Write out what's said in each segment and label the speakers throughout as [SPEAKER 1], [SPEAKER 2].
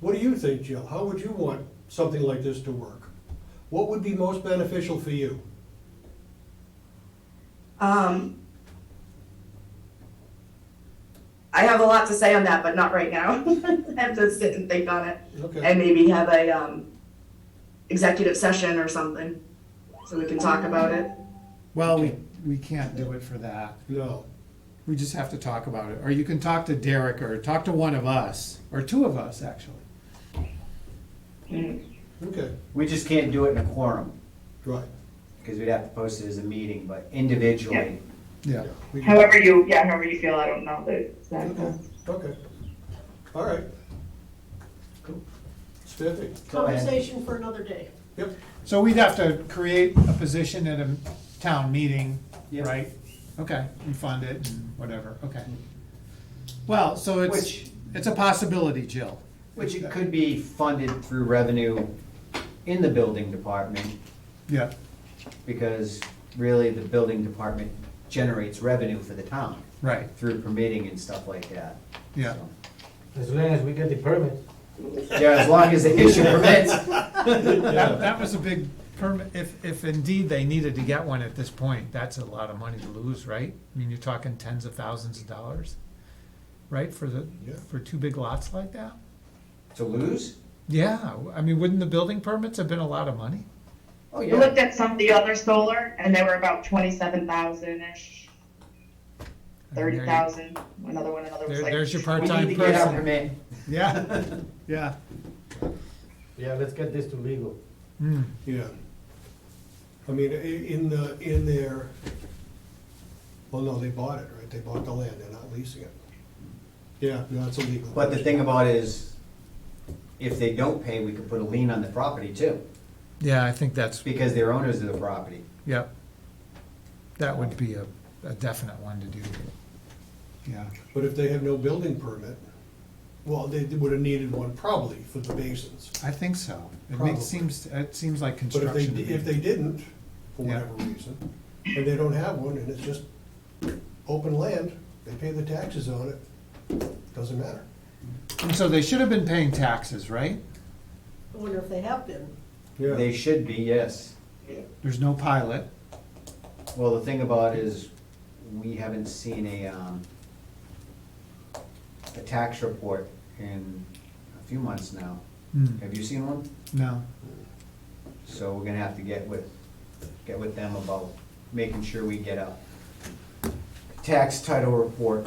[SPEAKER 1] What do you think, Jill? How would you want something like this to work? What would be most beneficial for you?
[SPEAKER 2] Um, I have a lot to say on that, but not right now. I have to sit and think on it
[SPEAKER 1] Okay,
[SPEAKER 2] and maybe have a, um, executive session or something, so we can talk about it.
[SPEAKER 3] Well, we, we can't do it for that.
[SPEAKER 1] no,
[SPEAKER 3] We just have to talk about it. Or you can talk to Derek or talk to one of us, or two of us, actually.
[SPEAKER 4] Hmm.
[SPEAKER 1] okay,
[SPEAKER 5] We just can't do it in a quorum,
[SPEAKER 1] right.
[SPEAKER 5] because we'd have to post it as a meeting, but individually.
[SPEAKER 3] Yeah.
[SPEAKER 1] yeah, we can-
[SPEAKER 2] However you, yeah, however you feel, I don't know the
[SPEAKER 4] uh,
[SPEAKER 2] exact.
[SPEAKER 1] Okay, okay, all right. Cool. It's fifty,
[SPEAKER 5] Go ahead.
[SPEAKER 6] Conversation for another day.
[SPEAKER 1] yep,
[SPEAKER 3] So we'd have to create a position at a town meeting,
[SPEAKER 5] Yep.
[SPEAKER 3] right? Okay, and fund it and whatever, okay. Well, so it's,
[SPEAKER 5] Mm-hmm. Which-
[SPEAKER 3] it's a possibility, Jill.
[SPEAKER 5] Which it could be funded through revenue in the building department,
[SPEAKER 3] Yeah,
[SPEAKER 5] because really the building department generates revenue for the town
[SPEAKER 3] right,
[SPEAKER 5] through permitting and stuff like that.
[SPEAKER 3] yeah.
[SPEAKER 5] So-
[SPEAKER 7] As long as we get the permit.
[SPEAKER 5] Yeah, as long as the issue permits.
[SPEAKER 3] That, that was a big permit, if, if indeed they needed to get one at this point, that's a lot of money to lose, right? I mean, you're talking tens of thousands of dollars, right, for the,
[SPEAKER 1] Yeah.
[SPEAKER 3] for two big lots like that?
[SPEAKER 5] To lose?
[SPEAKER 3] Yeah, I mean, wouldn't the building permits have been a lot of money?
[SPEAKER 5] Oh,
[SPEAKER 4] We
[SPEAKER 5] yeah.
[SPEAKER 4] looked at some of the other solar, and they were about twenty-seven thousand-ish,
[SPEAKER 3] I mean,
[SPEAKER 4] thirty
[SPEAKER 3] there you-
[SPEAKER 4] thousand, another one, another was
[SPEAKER 3] There,
[SPEAKER 4] like.
[SPEAKER 3] there's your
[SPEAKER 5] We need to
[SPEAKER 3] part-time
[SPEAKER 5] get our
[SPEAKER 3] person.
[SPEAKER 5] permit.
[SPEAKER 3] Yeah, yeah.
[SPEAKER 7] Yeah, let's get this to legal.
[SPEAKER 3] Hmm.
[SPEAKER 1] yeah. I mean, i- in the, in their, well, no, they bought it, right? They bought the land, they're not leasing it. Yeah, no, it's illegal.
[SPEAKER 5] But the thing about it is, if they don't pay, we could put a lien on the property too,
[SPEAKER 3] Yeah, I think that's,
[SPEAKER 5] because they're owners of the property.
[SPEAKER 3] yep. That would be a, a definite one to do. Yeah,
[SPEAKER 1] But if they have no building permit, well, they would have needed one probably for the basins.
[SPEAKER 3] I think so. It
[SPEAKER 1] Probably.
[SPEAKER 3] makes, seems, it seems like
[SPEAKER 1] But if they,
[SPEAKER 3] construction. to me.
[SPEAKER 1] if they didn't, for
[SPEAKER 3] Yeah.
[SPEAKER 1] whatever reason, and they don't have one, and it's just open land, they pay the taxes on it, doesn't matter.
[SPEAKER 3] And so they should have been paying taxes, right?
[SPEAKER 6] I wonder if they have been.
[SPEAKER 5] They should be, yes.
[SPEAKER 3] There's no pilot.
[SPEAKER 5] Well, the thing about it is, we haven't seen a, um, a tax report in a few months now.
[SPEAKER 3] Hmm,
[SPEAKER 5] Have you seen one?
[SPEAKER 3] No,
[SPEAKER 5] So we're gonna have to get with, get with them about making sure we get a tax title report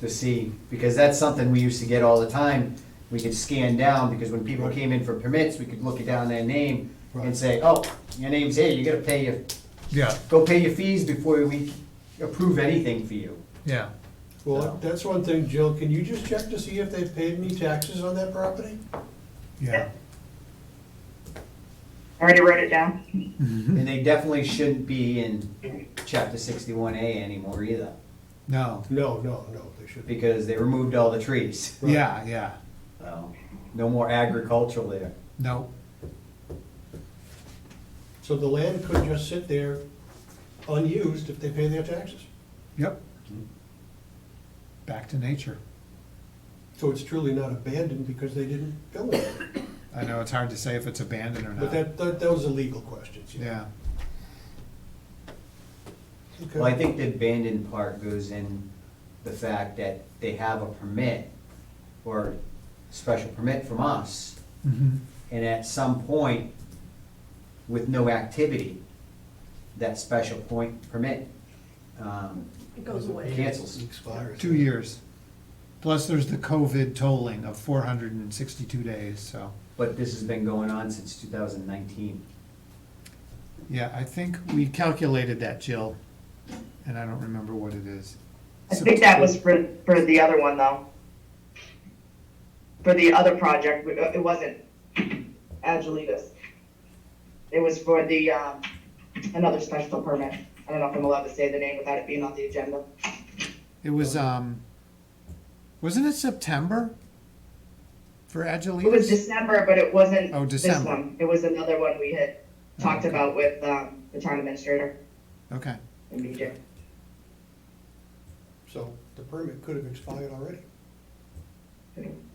[SPEAKER 5] to see, because that's something we used to get all the time. We could scan down, because when people came in for permits, we could look it down their name
[SPEAKER 1] Right.
[SPEAKER 5] and say, oh, your name's here, you gotta pay your,
[SPEAKER 3] yeah,
[SPEAKER 5] go pay your fees before we approve anything for you.
[SPEAKER 3] yeah.
[SPEAKER 1] Well, that's one thing, Jill, can you just check to see if they've paid any taxes on that property?
[SPEAKER 3] Yeah.
[SPEAKER 4] I Already wrote it down.
[SPEAKER 5] And they definitely shouldn't be in chapter sixty-one A anymore either,
[SPEAKER 3] No,
[SPEAKER 1] No, no, no, they should be.
[SPEAKER 5] because they removed all the trees.
[SPEAKER 1] Right.
[SPEAKER 3] yeah, yeah.
[SPEAKER 5] So, no more agricultural there.
[SPEAKER 3] No,
[SPEAKER 1] So the land could just sit there unused if they pay their taxes.
[SPEAKER 3] yep. Back to nature.
[SPEAKER 1] So it's truly not abandoned because they didn't build it.
[SPEAKER 3] I know it's hard to say if it's abandoned or
[SPEAKER 1] But
[SPEAKER 3] not.
[SPEAKER 1] that, that, those are legal questions.
[SPEAKER 3] Yeah,
[SPEAKER 1] Okay.
[SPEAKER 5] Well, I think the abandoned part goes in the fact that they have a permit or special permit from us,
[SPEAKER 3] Mhm.
[SPEAKER 5] and at some point, with no activity, that special point permit um,
[SPEAKER 6] It goes away.
[SPEAKER 5] cancels.
[SPEAKER 1] Expires.
[SPEAKER 3] two years. Plus there's the COVID tolling of four hundred and sixty-two days, so.
[SPEAKER 5] But this has been going on since 2019.
[SPEAKER 3] Yeah, I think we calculated that, Jill, and I don't remember what it is.
[SPEAKER 4] I think that was for, for the other one, though. For the other project, it it wasn't Agiletus. It was for the, um, another special permit. I don't know if I'm allowed to say the name without it being on the agenda.
[SPEAKER 3] It was, um, wasn't it September for
[SPEAKER 4] It was
[SPEAKER 3] Agiletus?
[SPEAKER 4] December, but it wasn't
[SPEAKER 3] Oh,
[SPEAKER 4] this
[SPEAKER 3] December.
[SPEAKER 4] one. It was another one we had talked
[SPEAKER 3] okay.
[SPEAKER 4] about with, um, the town administrator
[SPEAKER 3] Okay,
[SPEAKER 4] and BJ.
[SPEAKER 1] So the permit could have expired already.
[SPEAKER 4] It